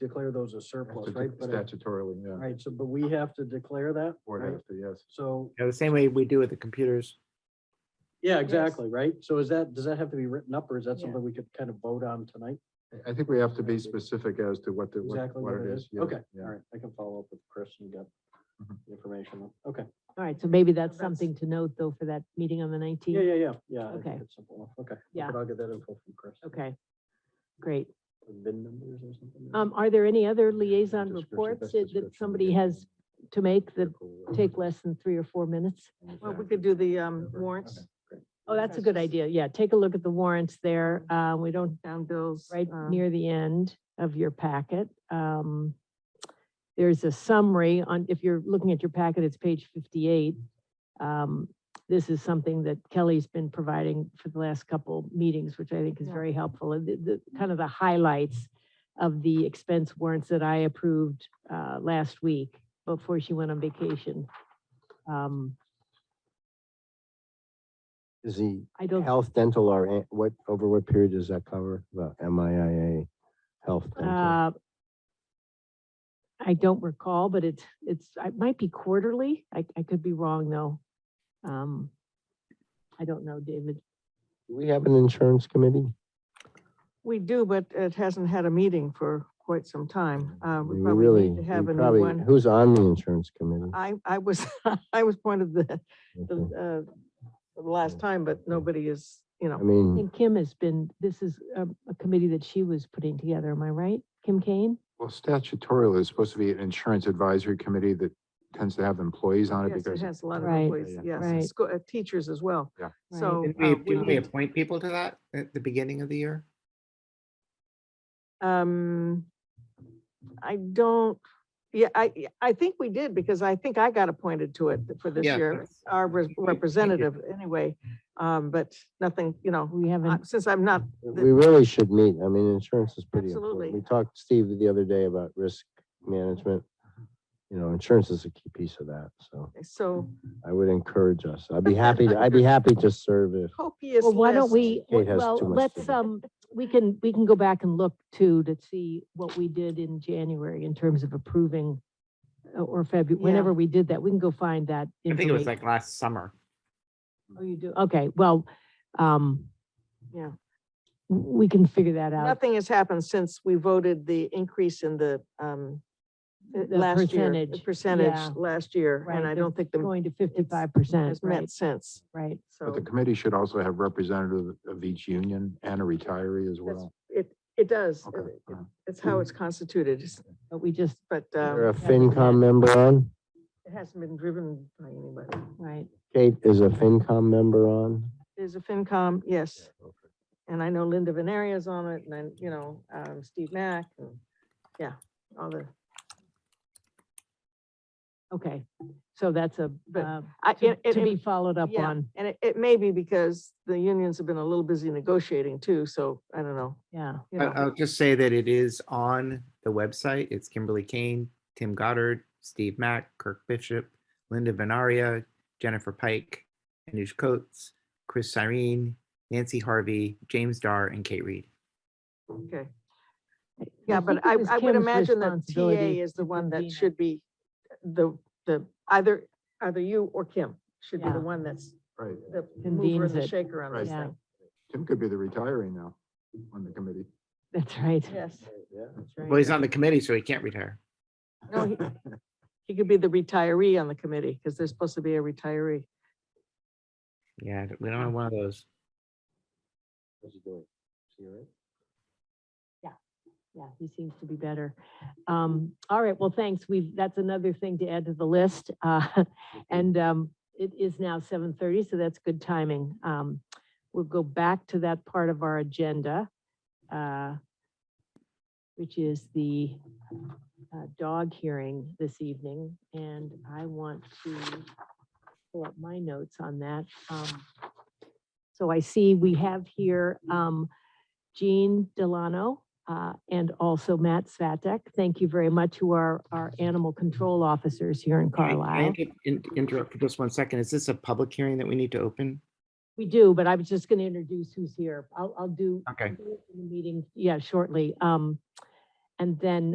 declare those as surplus, right? But it- Statutorily, yeah. Right, so, but we have to declare that, Board right? has to, yes. So, You know, the same way we do with the computers. yeah, Yes. exactly, right? So is that, does that have to be written up or is that Yeah. something we could kind of vote on tonight? I- I think we have to be specific as to what the, what Exactly what it is. yeah, Okay, yeah. all right, I can follow up with Chris and get Mhm. the information. Okay, All right, so maybe that's That's- something to note though for that meeting on the yeah, nineteenth. yeah, yeah, yeah. I think Okay. it's simple enough. Okay. Yeah. But I'll get that info from Chris. Okay, great. VIN numbers or something. Um, are there any other liaison Description, reports best that description, that somebody yeah. has to make that Cool, uh, take less than three or four minutes? Well, we could do the um, Whatever. warrants, Oh, that's a That's good just- idea. Yeah, take a look at the warrants there. Uh, we don't, down bills. right uh, near the end of your packet. Um, there's a summary on, if you're looking at your packet, it's page fifty-eight. Um, this is something that Kelly's been providing for the last couple meetings, which I think is Yeah. very helpful. And the, the, kind of the highlights of the expense warrants that I approved, uh, last week before she went on vacation. Um, Is the I don't, health, dental, or an- what, over what period does that cover? The MIA health, dental? uh, I don't recall, but it's, it's, it might be quarterly. I, I could be wrong though. Um, I don't know, David. Do we have an insurance committee? We do, but it hasn't had a meeting for quite some time. Uh, I we mean, probably need really- to we have a new probably- one. Who's on the insurance committee? I, I was, I was one of the, Okay. the, uh, the last time, but nobody is, you I know, mean, And Kim has been, this is a, a committee that she was putting together, am I right? Kim Kane? Well, statutorily, it's supposed to be an insurance advisory committee that tends to have employees on it yes, it because has a lot of Right, employees, yes, right. and scho- uh, teachers as well. Yeah. Right. So. Didn't uh, we, didn't we need- appoint people to that at the beginning of the year? Um, I don't, yeah, I, yeah, I think we did, because I think I got appointed to it for this Yeah, year, that's- our Thank re- you. representative, anyway. Um, but nothing, you know, We uh, haven't, since I'm not, we really should meet. I mean, insurance is pretty Absolutely. important. We talked to Steve the other day about risk management. Mm-hmm. You know, insurance is a key piece of that, so so I would encourage us. I'd be happy, to. I'd be happy to serve if. copious well, why don't list. we, Kate has well, too much to let's, do. um, we can, we can go back and look too, to see what we did in January in terms of approving uh, or February, Yeah. whenever we did that, we can go find that. I think it was information. like last summer. Oh, you do, okay, well, um. Yeah. w- We can figure that out. Nothing has happened since we voted the increase in the, um, uh, The last year, the percentage, yeah. percentage last year, Right, and I they're don't think the, Going to fifty-five percent, has right, met since, right. so. But the committee should also have representative of each union and a retiree as that's- well. It, it does, Okay, It- all right. it's how it's constituted, It's- But we just, but, Is there um, a FinCom member on? it hasn't been driven by anybody. right, Kate, is a FinCom member on? There's a FinCom, yes, and I know Linda Veneria's on it, and then, you know, um, Steve Mack, and, yeah, all the, okay, so that's a, But uh, I, to it- it- to be followed up yeah, on, And it, it may be because the unions have been a little busy negotiating too, so I don't know, yeah. you I- know. I'll just say that it is on the website. It's Kimberly Kane, Tim Goddard, Steve Mack, Kirk Bishop, Linda Venaria, Jennifer Pike, Anush Coates, Chris Cyrene, Nancy Harvey, James Dar, and Kate Reed. Okay, yeah, but think it I, was I would Kim's imagine that responsibility TA is the to one that convene it. should be the, the, either, either you or Kim should be Yeah. the one that's Right. the mover Convenes and the it. shaker on this Right. thing. Tim could be the retiree now on the committee. That's right, Yes. Yeah. Well, he's on the committee, so he can't retire. No, he- He could be the retiree on the committee, because there's supposed to be a retiree. Yeah, we don't have one of those. yeah, he seems to be better. Um, all right, well, thanks, we've, that's another thing to add to the list, uh, and, um, it is now seven thirty, so that's good timing. Um, we'll go back to that part of our agenda, uh, which is the, uh, dog hearing this evening, and I want to pull up my notes on that. Um, So I see we have here, um, Jean Delano, uh, and also Matt Svatek. Thank you very much, who are our animal control officers here in Can I- can I Carlisle. inter- in- Interrupt for just one second. Is this a public hearing that we need to open? We do, but I was just going to introduce who's here. I'll, I'll do. Okay. I'll do it in The meeting, yeah, shortly. Um, and then